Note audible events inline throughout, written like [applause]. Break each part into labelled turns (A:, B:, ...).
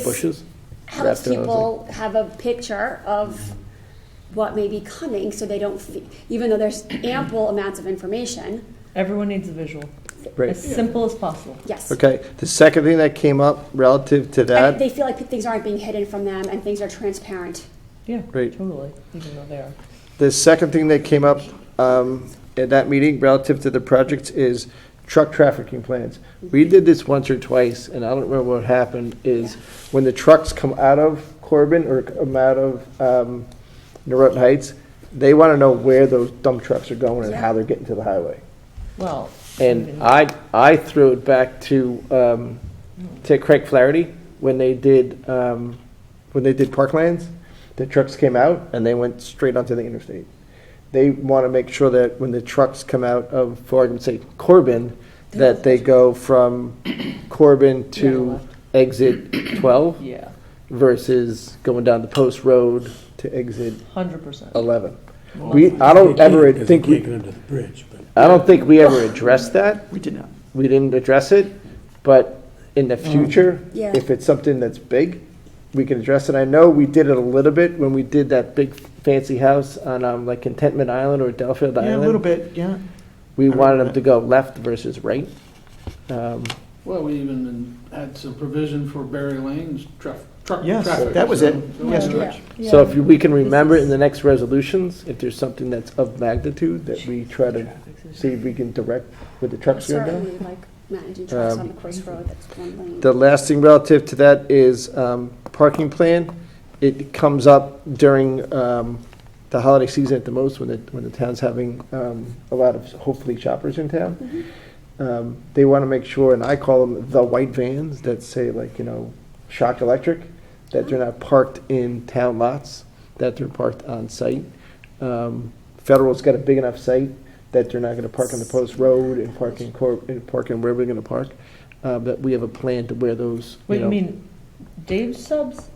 A: bushes
B: helps
A: wrapped around,
B: people have a picture of what may be coming, so they don't, fe- even though there's ample amounts of information,
C: Everyone needs a visual,
A: Right.
C: as simple as possible.
B: yes.
A: Okay, the second thing that came up relative to
B: And
A: that,
B: They feel like things aren't being hidden from them and things are transparent.
C: Yeah,
A: Right.
C: totally, even though they are.
A: the second thing that came up um, at that meeting relative to the projects is truck trafficking plans. We did this once or twice, and I don't remember what happened, is when the trucks come out of Corbin or come out of um, Norotan Heights, they want to know where those dump trucks are going and how they're getting to the highway.
C: Well. even-
A: And I, I threw it back to, um, to Craig Flaherty when they did, um, when they did Parklands. The trucks came out and they went straight onto the interstate. They want to make sure that when the trucks come out of, for argument's sake, Corbin, that they go from Corbin to exit twelve
C: Yeah,
A: versus going down the post road to exit
C: hundred percent.
A: eleven. We, I don't ever think,
D: Because
A: we.
D: we can't get under the bridge, but.
A: I don't think we ever addressed that.
E: We did not. Um,
A: we didn't address it, but in the future,
B: Yeah.
A: if it's something that's big, we can address it. I know we did it a little bit when we did that big fancy house on um, like Contentment Island or Delfield
E: Yeah, a little
A: Island.
E: bit, yeah.
A: We wanted them to go left versus right. Um,
F: Well, we even had some provision for Berry Lane's truck, truck
E: Yes,
F: traffic.
E: that was
F: so-
E: it.
F: so-
E: Yes,
C: Yeah.
E: George.
A: So if we can remember in the next resolutions, if there's something that's of magnitude, that we try to see if we can direct with the trucks going down.
B: Certainly, like managing trucks on
A: Um,
B: the course road, that's one lane.
A: The last thing relative to that is um, parking plan. It comes up during um, the holiday season at the most, when the, when the town's having um, a lot of, hopefully, shoppers in town. Um, They want to make sure, and I call them the white vans that say like, you know, shock electric, that they're not parked in town lots, that they're parked on site. Um, Federal's got a big enough site that they're not going to park on the post road and park in, Cor- and park in wherever they're going to park, uh, that we have a plan to where those, you
C: Wait, you
A: know-
C: mean Dave's subs?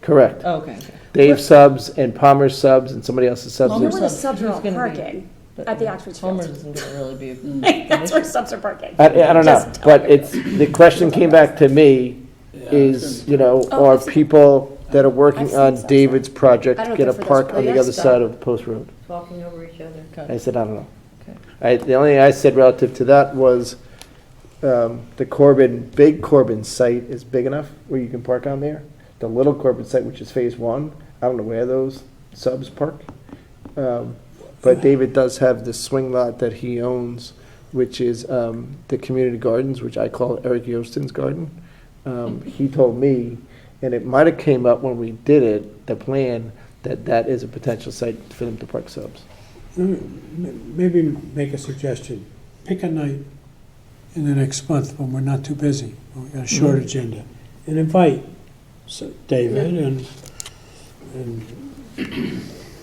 A: Correct.
B: Uh,
C: Oh, Okay, okay.
A: Dave subs and Palmer subs and somebody else's subs.
B: You know
C: Palmer's-
A: There's-
B: where the subs are
C: Who's
B: all
C: gonna be-
B: parking?
C: But,
B: At the
C: yeah,
B: Oxford
C: Homer's
B: Field.
C: isn't gonna really
B: [laughs]
C: be, a-
B: That's where subs are parking.
A: I, I don't know,
B: Just-
A: but it's, the question came back to me
F: Yeah, it's
A: is, you know,
B: Oh,
A: are
B: I've seen-
A: people that are
B: I've
A: working
B: seen
A: on
B: subs.
A: David's
B: I uh, don't
A: project get a
B: think for those
A: park on the
B: players,
A: other
B: though.
A: side of Post Road?
C: talking over each other.
A: I said, I don't know.
C: Okay.
A: I, the only thing I said relative to that was, um, the Corbin, big Corbin site is big enough where you can park on there. The little Corbin site, which is phase one, I don't know where those subs park. Um, but David does have the swing lot that he owns, which is, um, the community gardens, which I call Eric Yostin's garden. Um, he told me, and it might have came up when we did it, the plan, that that is a potential site for them to park subs.
D: Mm, Maybe make a suggestion. Pick a night in the next month when we're not too busy, when we've got a
E: Mm-hmm.
D: short agenda, and invite s- David and, and. you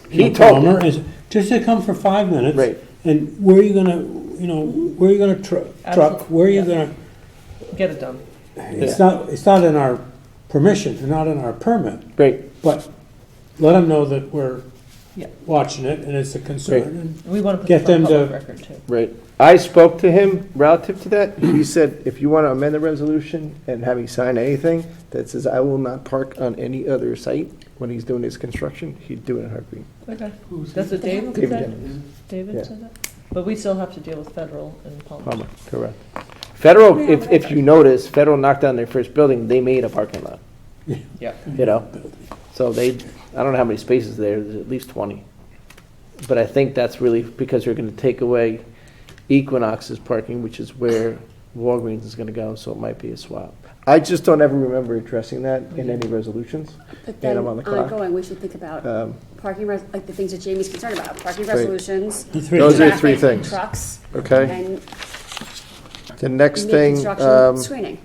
A: He
D: know,
A: told me.
D: Palmer, and- Just to come for five minutes.
A: Right.
D: And where are you gonna, you know, where are you gonna tru- truck,
C: Absolutely,
D: where are you
C: yeah.
D: gonna,
C: Get it done.
D: it's not, it's not in our permission, not in our permit,
A: Great.
D: but let them know that we're
C: Yeah.
D: watching it and it's a concern. and-
C: We wanna put
D: Get
C: this on
D: them to-
C: public record too.
A: Right. I spoke to him relative to that. He said, if you want to amend the resolution and have me sign anything that says I will not park on any other site when he's doing his construction, he'd do it in a heartbeat.
C: Okay,
F: Who's
C: that's what David
A: David
C: said?
A: Dennis. Yeah.
C: David said that? But we still have to deal with federal and Palmer.
A: Palmer, correct. Federal, if, if you notice, Federal knocked down their first building, they made a parking lot,
C: Yeah.
A: you know? So they, I don't know how many spaces there, there's at least twenty. But I think that's really because they're gonna take away Equinox's parking, which is where Walgreens is gonna go, so it might be a swap. I just don't ever remember addressing that in any resolutions.
B: But
A: And
B: then
A: I'm on the clock.
B: ongoing, we should think about
A: Um,
B: parking, res- like the things that Jamie's concerned about, parking
A: Right.
B: resolutions.
D: The three
A: Those are
B: traffic,
A: three things.
B: Trucks.
A: Okay,
B: And
A: the next thing,
B: mid-construction
A: um,
B: screening.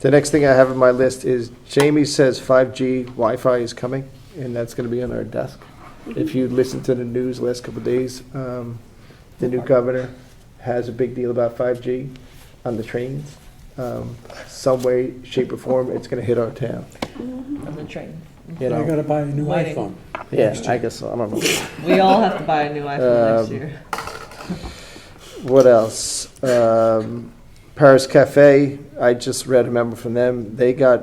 A: the next thing I have on my list is Jamie says 5G Wi-Fi is coming, and that's going to be on our desk. If you listen to the news last couple of days, um, the new governor has a big deal about 5G on the trains. Um, Some way, shape, or form, it's going to hit our town,
C: On the train.
A: you
D: I
A: know?
D: gotta buy a new
C: Lighting.
D: iPhone.
A: Yeah, I guess, so. I don't know.
C: We all have to buy a new iPhone next
A: Um,
C: year.
A: What else? Um, Paris Cafe, I just read a memo from them. They got